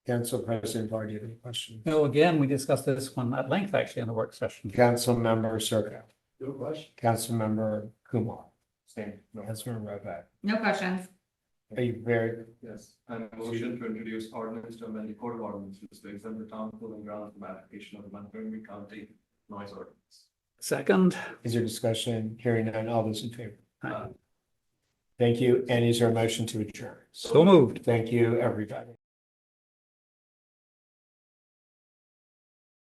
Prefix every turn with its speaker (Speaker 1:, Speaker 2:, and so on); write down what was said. Speaker 1: Council President Bar, do you have any questions?
Speaker 2: No, again, we discussed this one at length actually in the work session.
Speaker 1: Councilmember Circa,
Speaker 3: No question.
Speaker 1: Councilmember Kumar,
Speaker 3: Same, no,
Speaker 1: Councilmember Rovak.
Speaker 4: No questions.
Speaker 1: Are you very,
Speaker 3: yes, and a motion to introduce ordinance to amend the code of ordinances to exempt the town cooling ground from application of the Montgomery County noise ordinance.
Speaker 2: Second,
Speaker 1: is there discussion? Hearing none, all those in favor?
Speaker 2: Aye.
Speaker 1: Thank you. And is there a motion to adjourn?
Speaker 2: so moved.
Speaker 1: Thank you, everybody.